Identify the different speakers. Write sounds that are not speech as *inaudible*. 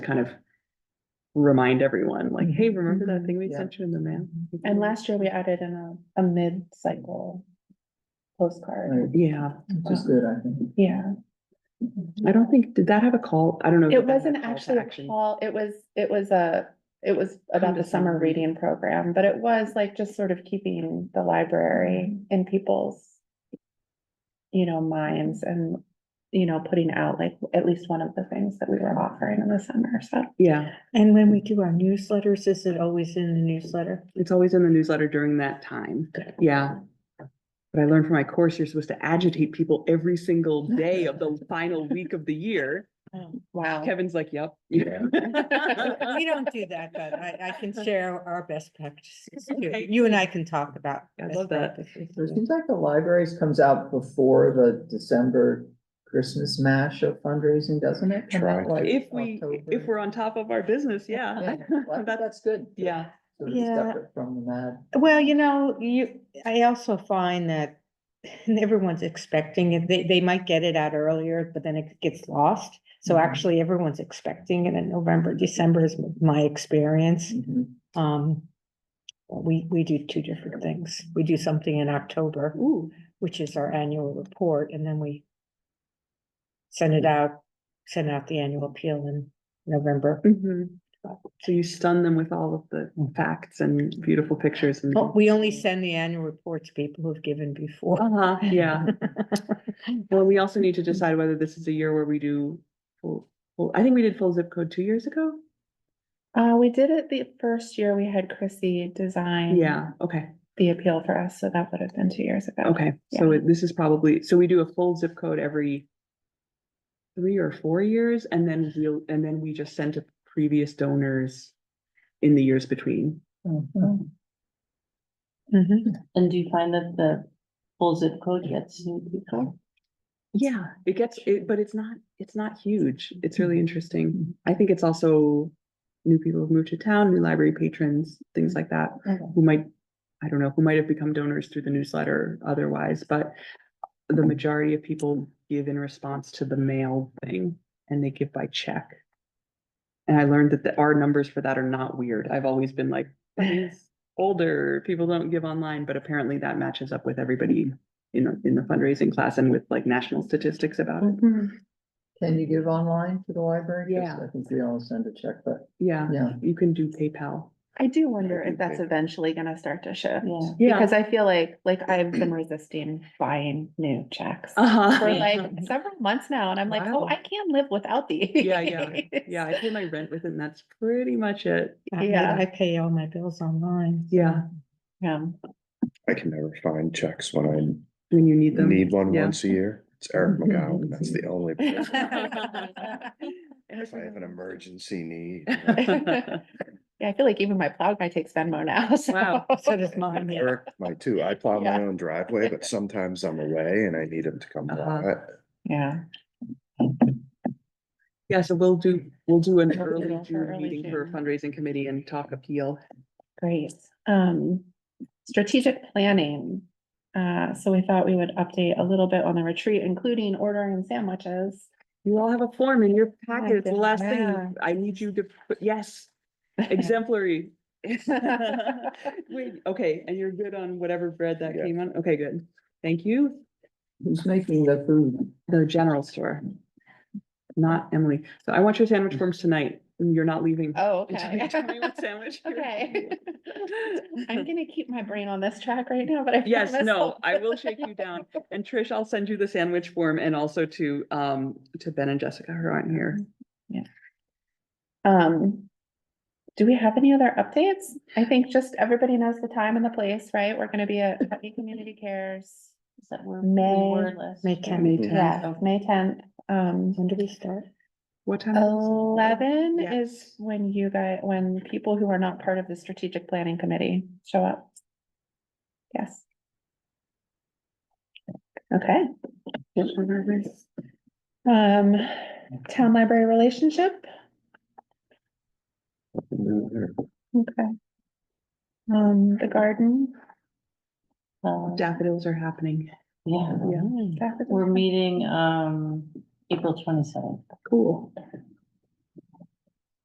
Speaker 1: kind of remind everyone, like, hey, remember that
Speaker 2: Mhm,
Speaker 1: thing we
Speaker 2: yeah.
Speaker 1: sent you in the mail?
Speaker 3: Mm-hmm. And
Speaker 1: Mm.
Speaker 3: last year we added in a, a mid-cycle postcard.
Speaker 2: Right,
Speaker 1: Yeah,
Speaker 2: Which is good, I think.
Speaker 3: Yeah,
Speaker 1: I don't think, did that have a call? I don't know.
Speaker 3: it
Speaker 1: if that had
Speaker 3: wasn't
Speaker 1: call to
Speaker 3: actually a
Speaker 1: action.
Speaker 3: call, it was, it was a, it was about the summer
Speaker 1: Condescending.
Speaker 3: reading program, but it was like just sort of keeping the library
Speaker 1: Mm.
Speaker 3: in people's you know, minds and, you know, putting out like at least one of the things that we were offering in the summer, so.
Speaker 1: Yeah,
Speaker 4: And when we do our newsletters, is it always in the newsletter?
Speaker 1: it's always in the newsletter during that time. Yeah. But I learned from my course, you're supposed to agitate people every single day of
Speaker 3: *laughs*
Speaker 1: the final week of the year. Oh,
Speaker 3: Wow.
Speaker 1: Kevin's like, yep. *laughs*
Speaker 2: Yeah.
Speaker 4: We don't do that, but I, I *laughs* can share our best practices. too.
Speaker 1: Okay.
Speaker 4: You and I can talk about.
Speaker 1: I
Speaker 4: best
Speaker 1: love that.
Speaker 4: practices.
Speaker 2: So It seems like the libraries comes out before the December Christmas mash of fundraising, doesn't it? Come out
Speaker 5: Try to.
Speaker 2: like
Speaker 1: If we, if
Speaker 2: October.
Speaker 1: we're on top of our business, yeah.
Speaker 2: Yeah,
Speaker 1: *laughs*
Speaker 2: well,
Speaker 1: That's-
Speaker 2: That's good.
Speaker 1: Yeah.
Speaker 2: Sort of
Speaker 4: Yeah.
Speaker 2: separate from the mad.
Speaker 4: Well, you know, you, I also find that *laughs* everyone's expecting it. They, they might get it out earlier, but then it gets lost. So
Speaker 2: Mhm.
Speaker 4: actually everyone's expecting it in November, December is my experience.
Speaker 2: Mhm.
Speaker 4: Um, we, we do two different things. We do something in October.
Speaker 1: Ooh,
Speaker 4: which is our annual report, and then we send it out, send out the annual appeal in November.
Speaker 1: mhm. So you stun them with all of the facts and beautiful pictures and.
Speaker 4: But Oh, we only send the annual report to people who've given before.
Speaker 1: Uh-huh, *laughs* yeah. Well, we also need to decide whether this is a year where we do, full. full- I think we did full zip code two years ago.
Speaker 3: Uh, we did it the first year we had Chrissy design.
Speaker 1: Yeah, okay,
Speaker 3: The appeal for us, so that would have been two years ago.
Speaker 1: okay. So it- this is probably, so we do a full zip code every three or four years and then we'll, and then we just send to previous donors in the years between.
Speaker 2: Mhm.
Speaker 4: Mhm.
Speaker 6: Mm-hmm. And do you find that the full zip code gets new people?
Speaker 1: Yeah, it gets, it, but it's not, it's not huge. It's really interesting. I think it's also new people who've moved to town, new library patrons, things like that. who might, I don't know, who might have become donors through the newsletter otherwise, but the majority of people give in response to the mail thing and they give by check. And I learned that the, our numbers for that are not weird. I've always been like, "That is older, people don't give online, but apparently that matches up with everybody in, the- in the fundraising class and with like national statistics about it.
Speaker 3: Mm-hmm.
Speaker 2: Can you give online to the library? 'Cause
Speaker 1: Yeah.
Speaker 2: I think we all send a check, but
Speaker 1: Yeah,
Speaker 2: yeah.
Speaker 1: you can do PayPal.
Speaker 3: I do wonder if
Speaker 5: think
Speaker 3: that's
Speaker 5: they-
Speaker 3: eventually gonna start to shift.
Speaker 6: Yeah.
Speaker 1: Yeah.
Speaker 3: Because I feel like, like I've been resisting buying new checks
Speaker 1: *laughs* Uh-huh.
Speaker 3: for like several months now, and I'm like,
Speaker 1: Wow.
Speaker 3: oh, I can't live without these.
Speaker 1: Yeah, yeah, yeah, I pay my rent with it and that's pretty much it.
Speaker 4: I-
Speaker 3: Yeah.
Speaker 4: I pay all my bills online.
Speaker 1: Yeah,
Speaker 3: *laughs* Yeah.
Speaker 5: I can never find checks when
Speaker 1: when you need
Speaker 5: I
Speaker 1: them.
Speaker 5: need one
Speaker 1: Yeah. Mm-hmm,
Speaker 5: once a year. It's Eric McGowan. That's the
Speaker 1: *laughs*
Speaker 5: only. place If I have an
Speaker 1: Wow. *laughs*
Speaker 5: emergency need.
Speaker 3: *laughs* Yeah, I feel like even my plow guy takes Venmo now, *laughs* so.
Speaker 1: Wow,
Speaker 4: So does mine, yeah.
Speaker 5: Eric, my too. I plow my
Speaker 3: Yeah.
Speaker 5: own driveway, but sometimes I'm away and I need him to come
Speaker 1: Uh-huh.
Speaker 5: plow it.
Speaker 3: Yeah.
Speaker 1: Yeah, so we'll do, we'll do an
Speaker 3: We'll
Speaker 1: early
Speaker 3: do it for
Speaker 1: June
Speaker 3: early
Speaker 1: meeting for
Speaker 3: June.
Speaker 1: fundraising committee and talk appeal.
Speaker 3: Great. Um, strategic planning. Uh, so we thought we would update a little bit on the retreat, including ordering sandwiches.
Speaker 1: You all have a form in your packet. It's the
Speaker 4: goodness.
Speaker 1: last
Speaker 3: Yeah.
Speaker 1: thing. I need you to, put yes, exemplary. *laughs*
Speaker 3: *laughs* Oh,
Speaker 1: Wait, okay, and you're good on whatever bread that
Speaker 5: Yeah.
Speaker 1: came on? Okay, good. Thank you.
Speaker 2: Who's making the food?
Speaker 1: The general store. Not Emily. So I want your sandwich forms tonight. You're not leaving.
Speaker 3: Mm. Oh,
Speaker 1: until you *laughs*
Speaker 3: okay.
Speaker 1: tell me
Speaker 3: *laughs*
Speaker 1: what sandwich you're
Speaker 3: Okay. *laughs*
Speaker 1: eating. *laughs*
Speaker 3: I'm gonna keep my brain on this track right now, but I.
Speaker 1: Yes,
Speaker 3: promise
Speaker 1: no,
Speaker 3: I'll-
Speaker 1: I will shake you down. And Trish, I'll send you the sandwich form and also to, um, to Ben and Jessica who aren't here.
Speaker 3: *laughs* Um, do we have any other updates? I think just everybody knows the time and the place, right? We're gonna be at Putney Community Cares.
Speaker 6: Is that where
Speaker 3: May-
Speaker 6: we were last?
Speaker 4: May
Speaker 6: year?
Speaker 4: tenth.
Speaker 1: May tenth.
Speaker 3: Mm-hmm. Yeah, May tenth. Um,
Speaker 4: When do we start?
Speaker 1: What time? is it?
Speaker 3: Oh. Eleven
Speaker 1: Yeah.
Speaker 3: is when you guys, when people who are not part of the strategic planning committee show up. Yes. Okay, um, town library relationship, okay. Um, the garden.
Speaker 6: Uh,
Speaker 1: Daffodils are happening.
Speaker 6: Yeah,
Speaker 1: Yeah,
Speaker 3: that was-
Speaker 6: we're meeting, um, April twenty-seventh.
Speaker 1: cool.